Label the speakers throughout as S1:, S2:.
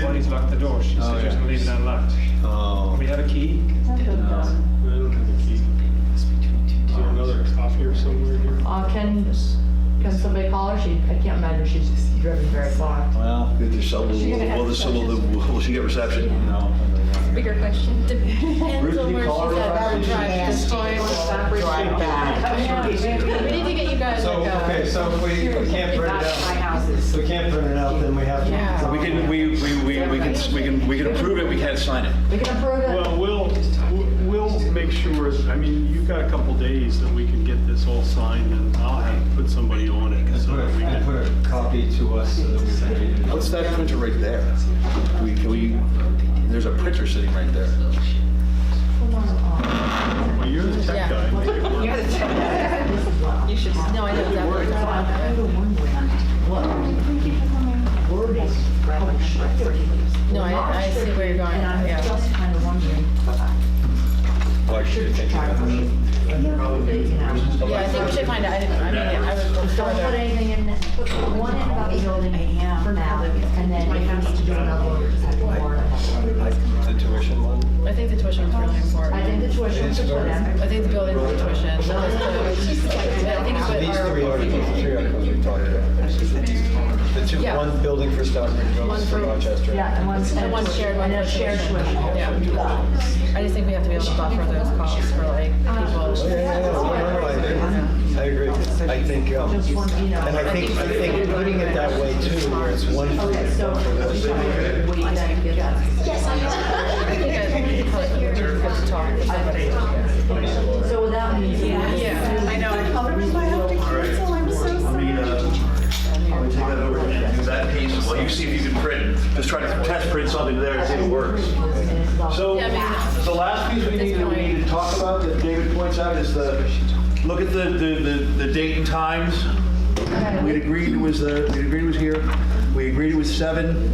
S1: Bonnie's locked the door. She
S2: Oh,
S1: said
S2: yeah.
S1: she's gonna leave it unlocked.
S2: Oh.
S1: We have a key?
S3: Uh,
S4: I don't have a key. Is there another copier somewhere here?
S3: can, can somebody call her? She, I can't imagine she's driven very far.
S2: Well,
S5: Did you sell the-
S6: She gonna have
S5: will the- will the- will she get reception?
S2: no.
S6: Bigger question. Depends
S2: Ruth,
S6: on
S2: you
S6: where she's
S2: call her
S6: at.
S2: up?
S6: Drive this point.
S7: Drive back.
S6: We need to get you guys
S2: So,
S6: like a.
S2: okay, so if we if we can't print it
S7: My
S2: out,
S7: house
S2: if
S7: is.
S2: we can't print it out, then we have to.
S7: Yeah.
S5: We can, we, we, we we can, we can, we can approve it, we can't sign it.
S3: We can approve it.
S4: Well, we'll, we'll make sure, I mean, you've got a couple days that we can get this all signed and I'll have, put somebody on it.
S2: Let's
S4: so
S2: put
S4: that we
S2: a,
S4: can-
S2: put a copy to us so that we can read it.
S5: What's that printer right there? We, can we, there's a printer sitting right there.
S3: Hold on, uh,
S4: Well, you're the tech guy. Make it work.
S7: You should.
S6: No, I know exactly.
S3: no, I found the one way. Look, Word is published.
S6: No, I, I see where you're going,
S3: And I'm
S6: yeah.
S3: just kind of wondering,
S5: Well, actually, I
S3: should
S5: think-
S3: try to push it. You know,
S6: Yeah, I think we should find out, I didn't, I mean, I was.
S8: Don't put anything in, this- put one in about the building for now, and then if we need to do another one, we just have to warn them.
S2: The tuition one?
S6: I think the tuition was really important.
S8: I think the tuition should go down.
S6: I think the building was the tuition. That was the- I think
S2: So these
S6: it's what
S2: three articles, the three articles we talked about. The two,
S6: Yeah.
S2: one building for Stockbridge, one
S6: One
S2: for
S6: for-
S2: Rochester.
S3: Yeah, and one.
S6: And one shared one.
S3: And a shared tuition.
S6: Yeah.
S3: You got it.
S6: our- I just think we have to be able to buffer those calls for like
S2: Yeah,
S6: people.
S2: yeah, yeah, no, no, I agree. I agree. I think, um,
S3: Just one, you know.
S2: and I think, I think putting it that way too, where it's one. for-
S3: Okay, so. Wait, you gotta get that.
S6: I think I probably would be good to talk to somebody.
S3: So without me.
S6: Yeah, I know.
S5: uh, Let me take that over and do that piece, well, you see if you can print, just try to test print something there and see if it works. So,
S6: Yeah, I mean-
S5: the last piece we need, we need to talk about that David points out is the, look at the, the, the- the date and times. We agreed it was, uh, we agreed it was here, we agreed it was seven.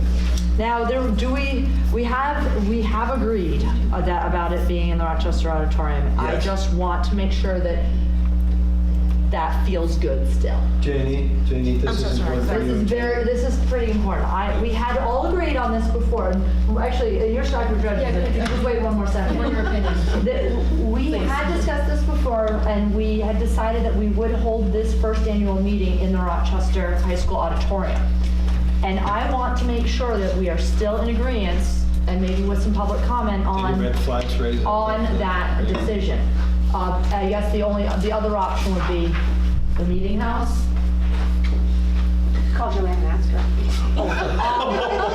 S3: Now, there, do we, we have, we have agreed uh, that, about it being in the Rochester Auditorium. I
S5: Yes.
S3: just want to make sure that that feels good still.
S2: Janie, Janie, this is important for
S3: This
S2: you.
S3: is very, this is pretty important. I, we had all agreed on this before, and actually, uh, your Stockbridge resident, just wait one more second.
S6: What are your opinions?
S3: That We had discussed this before, and we had decided that we would hold this first annual meeting in the Rochester High School auditorium. And I want to make sure that we are still in agreement, and maybe with some public comment on
S2: Red flags raised.
S3: on that decision. Uh, I guess the only, the other option would be the meeting house.
S7: Call Joanne Master.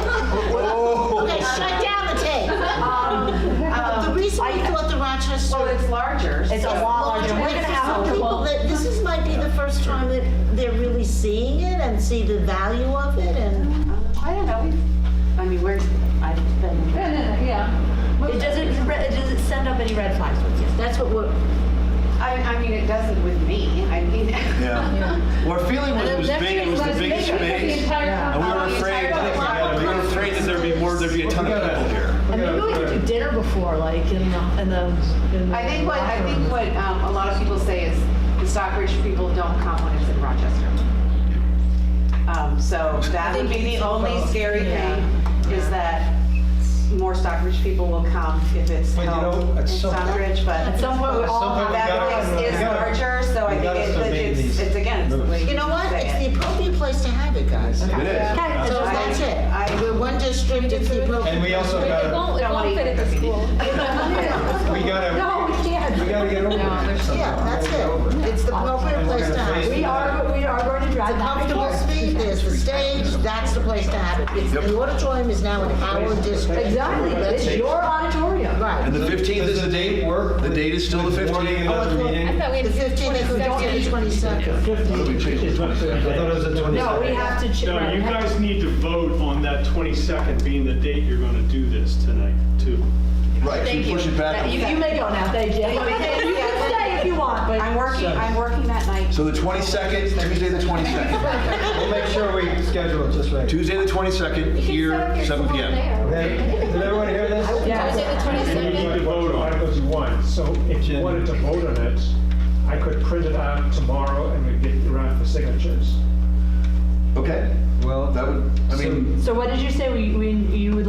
S9: Okay, shut down the tape. Uh,
S3: Um,
S9: The reason we thought the
S7: Well,
S9: Rochester.
S7: it's larger.
S3: It's a lot larger. We're gonna have
S9: Some people
S3: to,
S9: that- This is, might be the first time that they're really seeing it and see the value of it and.
S7: I don't know. we've- I mean, we're, I've been.
S3: it doesn't, it doesn't send up any red flags with you. That's what we're,
S7: I, I mean, it doesn't with me. I mean.
S5: Yeah. Our feeling was it was
S6: Next
S5: big, it was the
S6: week
S5: biggest
S6: was bigger.
S5: space. And we were afraid, we were afraid that there'd be more, there'd be a ton of people here.
S3: and maybe we could do dinner before, like, in the, in the. in the
S7: I think what, I
S3: locker
S7: think
S3: room.
S7: what um, a lot of people say is the Stockbridge people don't come when it's in Rochester. Um, So that would be the only scary thing, is that more Stockbridge people will come if it's
S2: But you know,
S7: held
S2: at
S7: in
S2: some-
S7: Stockbridge,
S3: At
S7: but
S3: some point, we all
S2: Some
S3: have
S2: people-
S3: that.
S7: that
S2: gotta-
S7: place is
S2: we gotta-
S7: larger, so
S2: we
S7: I think
S2: gotta
S7: it's-
S2: start making
S7: it's,
S2: these
S7: it's again, it's
S2: moves.
S7: like.
S9: You know what? It's the appropriate place to have it, guys. So
S5: It is.
S3: Okay, so
S9: that's it.
S7: I- I-
S9: We're one district, it's the
S2: And
S9: appropriate.
S2: we also gotta,
S7: Don't want to fit at the school.
S2: we
S3: No,
S2: gotta,
S3: we
S2: we
S3: can't.
S2: gotta get over
S6: No,
S2: it.
S6: there's-
S9: Yeah, that's it. It's the appropriate place to have it.
S3: We are, we are going to drive that
S9: Comfortable speed, there's the stage, that's the place to have it. It's- The auditorium is now in our district.
S3: Exactly, it's your auditorium.
S9: Right.
S5: And the 15th is
S2: Does
S5: the
S2: the
S5: date?
S2: date work?
S5: The date is still the
S2: Warning
S5: 15th?
S2: another meeting? I
S6: thought we
S9: The 15th is the 15th, 22nd.
S2: thought it was the 22nd.
S3: No, we have to. ch-
S4: No,
S3: right,
S4: you
S3: we have to-
S4: guys need to vote on that 22nd being the date you're going to do this tonight, too.
S5: Right,
S6: Thank
S5: you push
S6: you.
S5: it back.
S3: You, you may go now, thank you. You can stay if you want, but.
S7: I'm working, I'm working that night.
S5: So the 22nd, Tuesday the 22nd.
S2: We'll make sure we schedule it just right.
S5: Tuesday the 22nd, here, 7 PM.
S2: Okay, Did everyone hear this?
S3: Yeah.
S4: You need to vote on
S10: articles you want, so if you wanted to vote on it, I could print it out tomorrow and we'd get it around for signatures.
S5: Okay,
S2: Well,
S5: that would, I mean.
S3: So what did you say, we, we, you would